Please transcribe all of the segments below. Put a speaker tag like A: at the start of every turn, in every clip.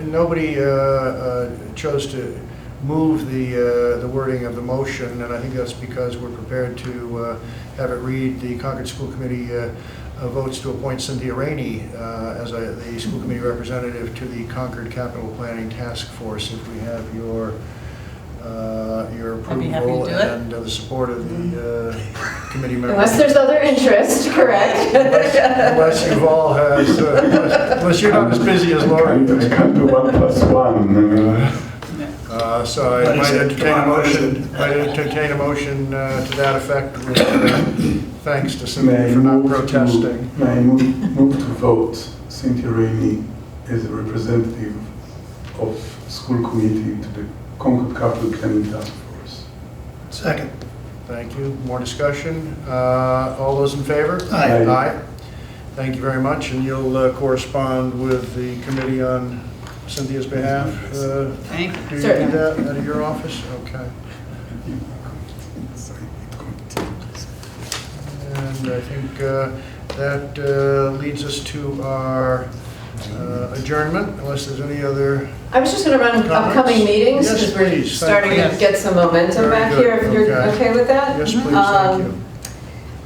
A: nobody uh, uh, chose to move the, uh, the wording of the motion, and I think that's because we're prepared to uh, have it read, the Concord School Committee uh, uh, votes to appoint Cynthia Rainey uh, as a- the school committee representative to the Concord Capital Planning Task Force. If we have your, uh, your
B: I'd be happy to
A: approval
B: do it.
A: and uh, the support of the uh, committee members.
C: Unless there's other interest, correct?
A: Unless you've all had, uh, unless you're not as busy as Laura.
D: Can't can't do one plus one. I mean,
A: Uh, So I
E: What is
A: might
E: it?
A: entertain a
E: Come on, what is
A: motion,
E: it?
A: might entertain a motion uh, to that effect with uh, thanks to
D: may
A: Cindy
D: I
A: for not
D: move to-
A: protesting.
D: May I move, move to vote Cynthia Rainey as a representative of school committee to the Concord Capital Planning Task Force?
E: Second.
A: Thank you. More discussion? Uh, All those in favor?
E: Aye.
A: Aye. Thank you very much, and you'll uh, correspond with the committee on Cynthia's behalf? uh,
B: Thank you.
A: Do you do
C: Certainly.
A: that out of your office? Okay. And I think uh, that uh, leads us to our uh, adjournment, unless there's any other,
C: I was just gonna run upcoming meetings,
A: Yes,
C: because we're
A: please, thank
C: starting to
B: you.
C: get some
A: Very
C: momentum back here,
A: good,
C: if you're
A: okay.
C: okay with that?
A: yes, please,
C: Um,
A: thank you.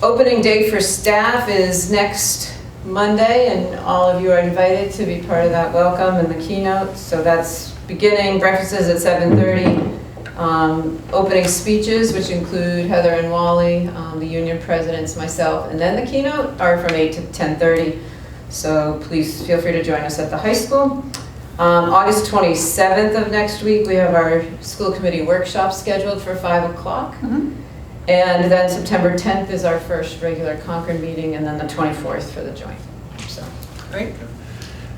C: Opening day for staff is next Monday, and all of you are invited to be part of that welcome and the keynote. So that's beginning, breakfast is at 7:30. Um, Opening speeches, which include Heather and Wally, um, the union presidents, myself, and then the keynote, are from 8 to 10:30. So please feel free to join us at the high school. Um, August 27th of next week, we have our school committee workshop scheduled for 5 o'clock. And then September 10th is our first regular Concord meeting, and then the 24th for the joint, so.
B: Great.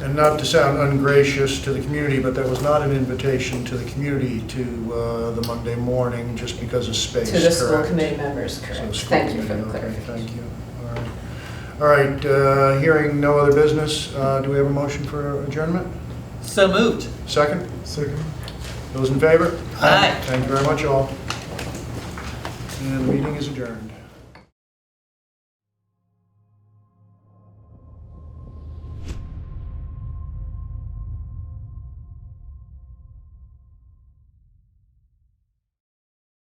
A: And not to sound ungracious to the community, but that was not an invitation to the community to uh, the Monday morning, just because of space,
C: To the school
A: correct?
C: committee members,
A: So
C: correct.
A: school
C: Thank you for the
A: committee, okay,
C: clarification.
A: Thank you. All right. All right, uh, hearing no other business, uh, do we have a motion for adjournment?
B: So moved.
A: Second?
D: Second.
A: Those in favor?
B: Aye.
A: Thank you very much, all. And the meeting is adjourned.